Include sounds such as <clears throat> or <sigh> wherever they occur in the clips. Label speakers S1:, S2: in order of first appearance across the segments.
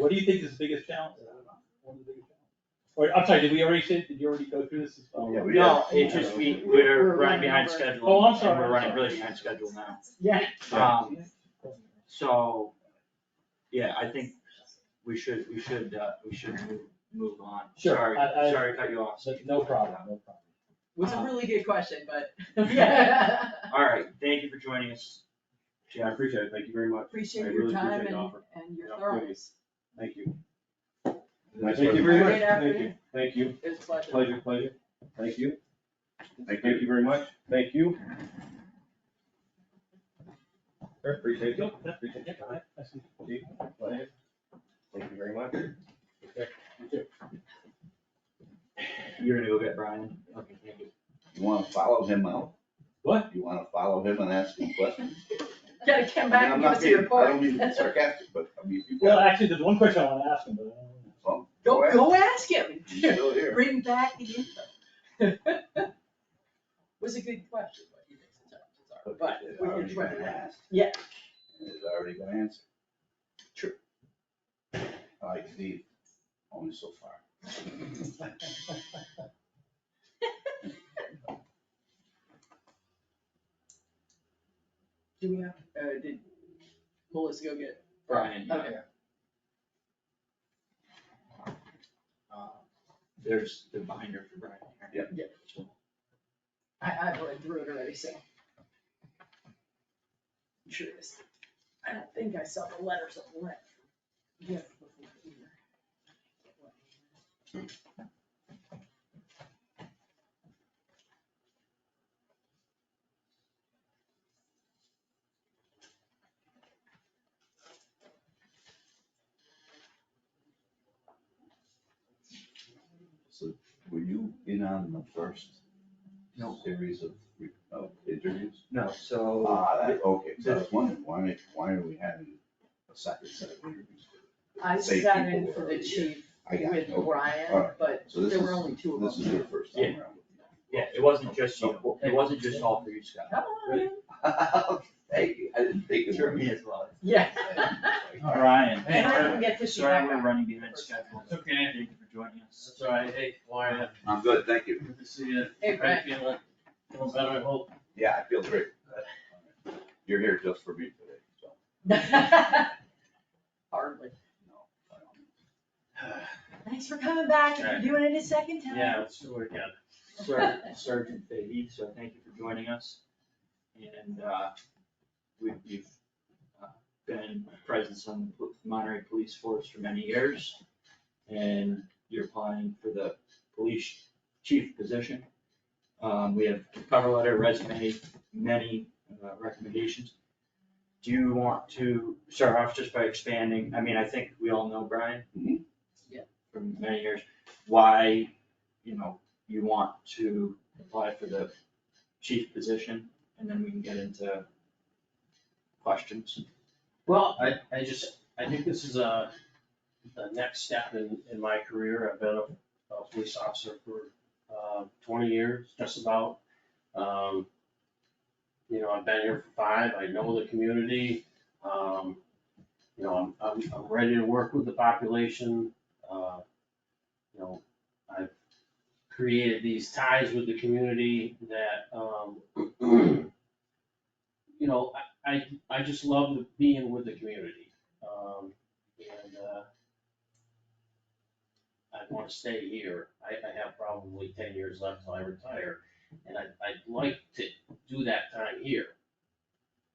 S1: What do you think is the biggest challenge? I don't know. One of the biggest challenges. Or, I'm sorry, did we already say, did you already go through this as well?
S2: Yeah, we
S3: No,
S2: have-
S3: it's just we,
S4: We're
S3: we're running
S4: running
S3: behind
S4: over.
S3: schedule.
S1: Oh, I'm
S3: and
S1: sorry,
S3: We're
S1: I'm
S3: running
S1: sorry.
S3: really behind schedule now.
S4: Yeah.
S2: Yeah.
S3: Um, so, yeah, I think we should, we should, uh, we should move, move on.
S1: Sure,
S3: Sorry,
S1: I- I-
S3: sorry to cut you off.
S1: So, No problem, no problem.
S4: Was a really good question, but
S3: <laughs> Yeah. All right, thank you for joining us.
S2: Yeah, I appreciate it, thank you very much. I
S4: appreciate your
S2: really
S4: time
S2: appreciate
S4: and,
S2: the offer.
S4: and your
S2: Yeah,
S4: thoroughness.
S2: Thank you.
S5: Nice
S2: Thank you very
S4: work.
S2: much,
S4: Right after
S2: thank
S4: you.
S2: you, thank you,
S4: It was a pleasure.
S2: pleasure, pleasure, thank you, thank you very much, thank you. Appreciate you, appreciate
S1: Yeah, I- I see.
S2: you, pleasure. Thank you very much.
S3: You're gonna go get Brian? Okay, thank you.
S5: You wanna follow him out?
S1: What?
S5: You wanna follow him and ask him questions?
S4: Gotta come
S5: I mean,
S4: back
S5: I'm
S4: and give
S5: not
S4: us your
S5: being- I
S4: report.
S5: don't mean to be sarcastic, but I mean, if you
S1: Well,
S5: got,
S1: actually, there's one question I wanna ask him, but I don't know.
S5: well,
S4: <laughs> Go, go ask him.
S2: <laughs>
S5: he's still here.
S4: Bring back the info. <laughs> Was a good question, what you think the challenges are, <laughs> but
S5: It's
S4: we
S5: already
S4: can try
S5: been
S4: that.
S5: asked.
S4: Yeah.
S5: It's already been answered.
S4: True.
S5: I like Steve, only so far.
S4: Do we have, uh, did Melissa go get?
S3: Brian, yeah.
S4: Okay.
S3: Uh, There's the binder for Brian here.
S4: Yeah. I, I've already through it already, so. I'm Sure it is. I don't think I saw the letters of the left. Yeah.
S5: So were you in on the first
S3: No. Oh,
S5: series of, re- of interviews?
S3: No, so.
S5: Ah, that, okay, so I was wondering, why, why are we having a second set of interviews?
S4: I
S5: Same
S4: sat
S5: people
S4: in
S5: were
S4: for the
S5: already here.
S4: chief
S5: I got it,
S4: with
S5: okay. All
S4: Brian,
S5: right.
S4: but
S5: So this
S4: there
S5: is,
S4: were only two of
S5: this
S4: them.
S5: is your first time around.
S3: Yeah, it wasn't just you, it wasn't just all for you, Scott.
S4: Come on.
S5: <laughs> Thank you, I didn't think it
S3: Sure,
S5: was.
S3: me as well.
S4: Yeah.
S3: Brian.
S4: And I didn't get to see
S3: uh, Sorry,
S4: that
S3: we're
S4: one.
S3: running behind schedule.
S6: Okay,
S3: Thank you for joining us.
S6: that's all right. Hey, how are you?
S5: I'm good, thank you.
S6: Good to see you.
S4: Hey,
S6: How you
S4: Brett.
S6: feeling? Feeling better, I hope.
S5: Yeah, I feel great. You're here just for me today, so.
S4: <laughs> Hardly.
S5: no, I don't-
S4: Thanks for coming back and for doing it a second time.
S6: Yeah, let's do it again.
S3: Ser- Sergeant Fahey, so thank you for joining us. And, uh, we, you've uh, been present on the Monterey Police Force for many years. And you're applying for the police chief position. Um, we have cover letter, resume, many uh, recommendations. Do you want to start off just by expanding, I mean, I think we all know Brian.
S5: Mhm.
S4: Yeah.
S3: For many years, why, you know, you want to apply for the chief position, and then we can get into questions.
S6: Well, I, I just, I think this is a, the next step in, in my career. I've been a, a police officer for, uh, twenty years, just about. Um, you know, I've been here for five, I know the community, um, you know, I'm, I'm, I'm ready to work with the population, uh, you know, I've created these ties with the community that, um, <clears throat> you know, I, I I just love the- being with the community. Um, and, uh, I want to stay here. I, I have probably ten years left till I retire. And I, I'd like to do that time here.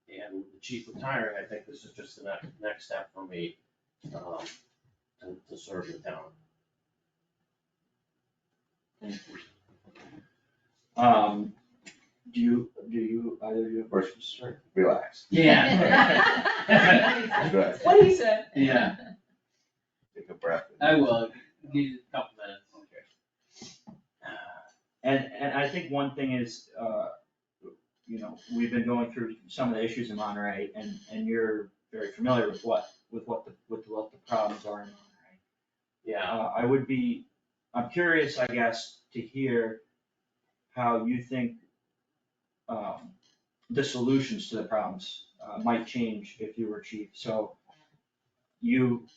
S6: And with the chief retiring, I think this is just the next, next step for me, um, to, to serve the town.
S3: Um, do you, do you, either of you have questions, sir?
S5: Relax,
S6: Yeah.
S5: Right.
S4: <laughs> What he said.
S6: <laughs> Yeah.
S5: take a breath.
S6: will, give you a couple minutes.
S5: Okay.
S3: And, and I think one thing is, uh, you know, we've been going through some of the issues in Monterey, and, and you're very familiar with what, with what the, with what the problems are in Monterey.
S6: Yeah,
S3: Uh, I would be, I'm curious, I guess, to hear how you think um, the solutions to the problems uh, might change if you were chief. So you